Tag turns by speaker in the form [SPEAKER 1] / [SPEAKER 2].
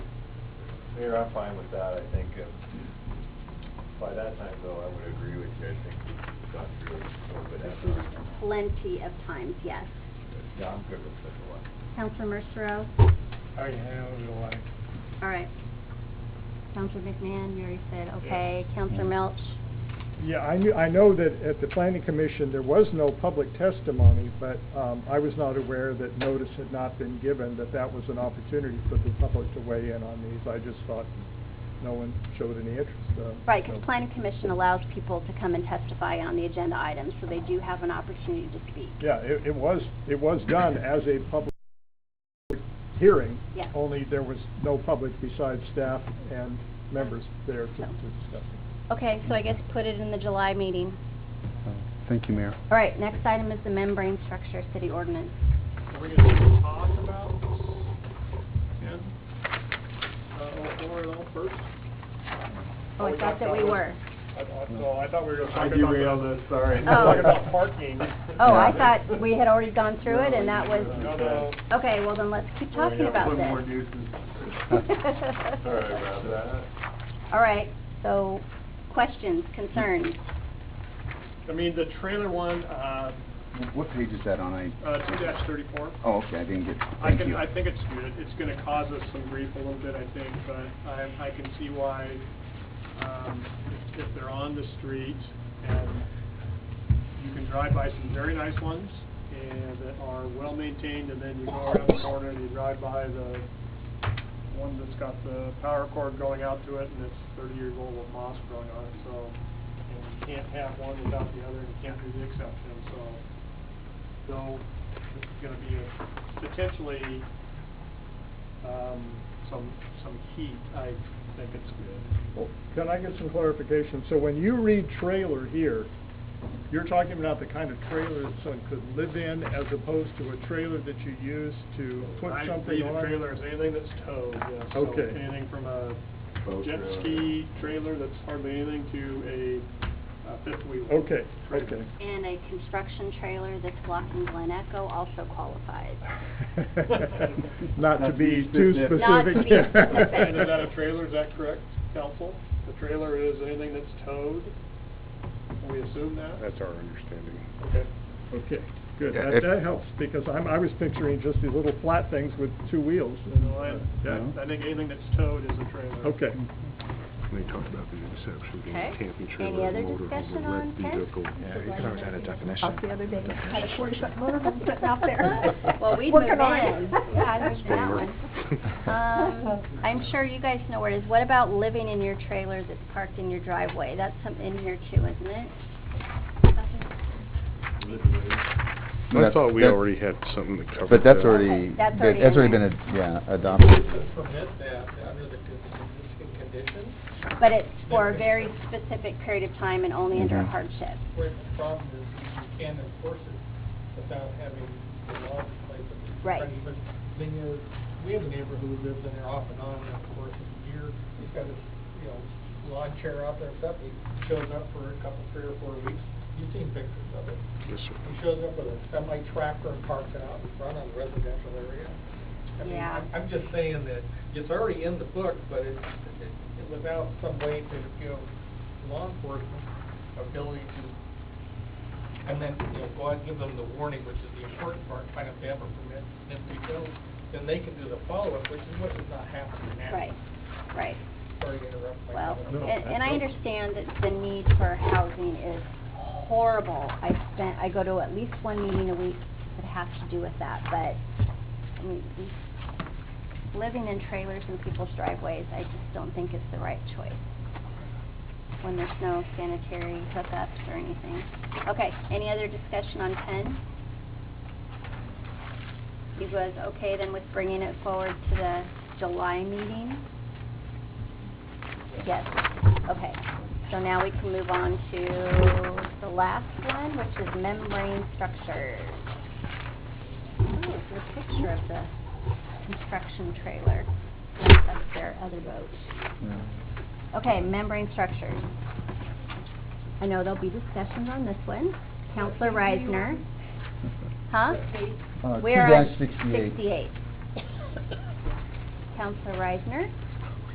[SPEAKER 1] here, I'm fine with that, I think. uh, By that time, though, I would agree with you, I think we've gone through it a little bit.
[SPEAKER 2] This is plenty of times, yes.
[SPEAKER 1] Yeah, I'm good with such a one.
[SPEAKER 2] Counselor Mercero?
[SPEAKER 3] I handled it like,
[SPEAKER 2] All right. Counselor McMahon, you already said, okay.
[SPEAKER 3] Mm-hmm.
[SPEAKER 2] Counselor Melch?
[SPEAKER 4] Yeah, I knew, I know that at the planning commission, there was no public testimony, but um, I was not aware that notice had not been given, that that was an opportunity for the public to weigh in on these. I just thought no one showed any interest. uh,
[SPEAKER 2] Right, because
[SPEAKER 4] so-
[SPEAKER 2] planning commission allows people to come and testify on the agenda items, so they do have an opportunity to speak.
[SPEAKER 4] Yeah, it, it was, it was done as a public hearing.
[SPEAKER 2] Yeah.
[SPEAKER 4] Only there was no public besides staff and members there to to discuss it.
[SPEAKER 2] Okay, so I guess put it in the July meeting.
[SPEAKER 5] Thank you, Mayor.
[SPEAKER 2] All right, next item is the membrane structure city ordinance.
[SPEAKER 3] are we gonna talk about ten, uh, oh four and all first?
[SPEAKER 2] Oh, I thought that we were.
[SPEAKER 3] I thought, no, I thought we were gonna
[SPEAKER 1] I
[SPEAKER 3] talk about.
[SPEAKER 1] derailed
[SPEAKER 3] the-
[SPEAKER 1] it, sorry.
[SPEAKER 2] Oh.
[SPEAKER 3] Talk about parking.
[SPEAKER 2] Oh, I thought we had already gone through it, and that was,
[SPEAKER 3] No, no,
[SPEAKER 2] okay, well then let's keep talking about
[SPEAKER 1] Put more
[SPEAKER 2] this.
[SPEAKER 1] nuisance. Sorry about that.
[SPEAKER 2] All right, so questions, concerns?
[SPEAKER 3] I mean, the trailer one, uh,
[SPEAKER 5] What page is that on? I,
[SPEAKER 3] uh, two dash thirty-four.
[SPEAKER 5] oh, okay, I didn't get,
[SPEAKER 3] I
[SPEAKER 5] thank
[SPEAKER 3] can,
[SPEAKER 5] you.
[SPEAKER 3] I think it's good. It's gonna cause us some grief a little bit, I think, but I, I can see why, um, if- if they're on the street and you can drive by some very nice ones and that are well-maintained and then you go around the corner and you drive by the one that's got the power cord going out to it and it's thirty years old with moss growing on it, so, and you can't have one without the other and you can't do the exception, so though this is gonna be a- potentially, um, some, some heat, I think it's good.
[SPEAKER 4] Well, Can I get some clarification? So when you read trailer here, you're talking about the kind of trailer that someone could live in as opposed to a trailer that you use to put
[SPEAKER 3] I
[SPEAKER 4] something
[SPEAKER 3] read a
[SPEAKER 4] on?
[SPEAKER 3] trailer as anything that's towed, yeah, so
[SPEAKER 4] Okay.
[SPEAKER 3] anything from a
[SPEAKER 1] Boat
[SPEAKER 3] jet
[SPEAKER 1] trailer.
[SPEAKER 3] ski trailer that's hardly anything to a, a fifth wheel.
[SPEAKER 4] Okay,
[SPEAKER 3] trailer.
[SPEAKER 4] okay.
[SPEAKER 2] And a construction trailer that's blocking Glen Echo also qualifies.
[SPEAKER 4] Not to
[SPEAKER 5] Not
[SPEAKER 4] be too specific.
[SPEAKER 2] Not to be specific.
[SPEAKER 3] And is that a trailer, is that correct, council? The trailer is anything that's towed? We assume that?
[SPEAKER 6] That's our understanding.
[SPEAKER 3] Okay.
[SPEAKER 4] Okay, good.
[SPEAKER 6] Yeah,
[SPEAKER 4] That,
[SPEAKER 6] if-
[SPEAKER 4] that helps because I'm, I was picturing just these little flat things with two wheels.
[SPEAKER 3] You know, I-
[SPEAKER 4] Yeah.
[SPEAKER 3] I think anything that's towed is a trailer.
[SPEAKER 4] Okay.
[SPEAKER 6] They talked about the intersection between
[SPEAKER 2] Okay.
[SPEAKER 6] a camping
[SPEAKER 2] Any
[SPEAKER 6] trailer,
[SPEAKER 2] other
[SPEAKER 6] a motorhome,
[SPEAKER 2] discussion
[SPEAKER 6] a
[SPEAKER 2] on
[SPEAKER 6] wrecked
[SPEAKER 2] ten?
[SPEAKER 6] vehicle.
[SPEAKER 7] Yeah, we covered that at definition.
[SPEAKER 8] Up the other day, I had a forty-foot motorhome sitting out there.
[SPEAKER 2] Well, we'd move in.
[SPEAKER 8] Working on it.
[SPEAKER 2] Yeah, I moved that one. Um, I'm sure you guys know where it is. What about living in your trailer that's parked in your driveway? That's some in here too, isn't it?
[SPEAKER 6] I
[SPEAKER 7] That-
[SPEAKER 6] thought we
[SPEAKER 7] that-
[SPEAKER 6] already had something that covered that.
[SPEAKER 7] But that's
[SPEAKER 2] Okay,
[SPEAKER 7] already,
[SPEAKER 2] that's
[SPEAKER 7] that-
[SPEAKER 2] already
[SPEAKER 7] that's
[SPEAKER 2] in
[SPEAKER 7] already been,
[SPEAKER 2] there.
[SPEAKER 7] ad- yeah, adopted.
[SPEAKER 9] permit that under the existing conditions,
[SPEAKER 2] But it's for a very specific period of time and only under a
[SPEAKER 7] Mhm.
[SPEAKER 2] hardship.
[SPEAKER 9] where the problem is you can't enforce it without having the law in place.
[SPEAKER 2] Right.
[SPEAKER 9] But the thing is, we have a neighbor who lives in there off and on, and of course, a year, he's got his, you know, lawn chair out there and stuff, he shows up for a couple, three or four weeks, you've seen pictures of it.
[SPEAKER 6] Yes, sir.
[SPEAKER 9] He shows up with a semi tractor and parks it out in front of the residential area. I mean,
[SPEAKER 2] Yeah.
[SPEAKER 9] I'm, I'm just saying that it's already in the book, but it's, it- it- without some way to give law enforcement ability to, and then, you know, go out and give them the warning, which is the important part, find out if they have a permit, and if they don't, then they can do the follow-up, which is what is not happening now.
[SPEAKER 2] Right, right.
[SPEAKER 9] Sorry to interrupt. my
[SPEAKER 2] Well,
[SPEAKER 9] comment.
[SPEAKER 2] and, and I understand that the need for housing is horrible. I spent, I go to at least one meeting a week that has to do with that, but, I mean, these- living in trailers in people's driveways, I just don't think is the right choice when there's no sanitary hookups or anything. Okay, any other discussion on ten? You guys okay then with bringing it forward to the July meeting? Yes, okay. So now we can move on to the last one, which is membrane structures. Oh, there's a picture of the construction trailer. That's their other boat. Okay, membrane structures. I know there'll be discussions on this one. Counselor Reisner. Huh?
[SPEAKER 7] Uh,
[SPEAKER 2] We're on
[SPEAKER 7] 2-68.
[SPEAKER 2] Counselor Reisner.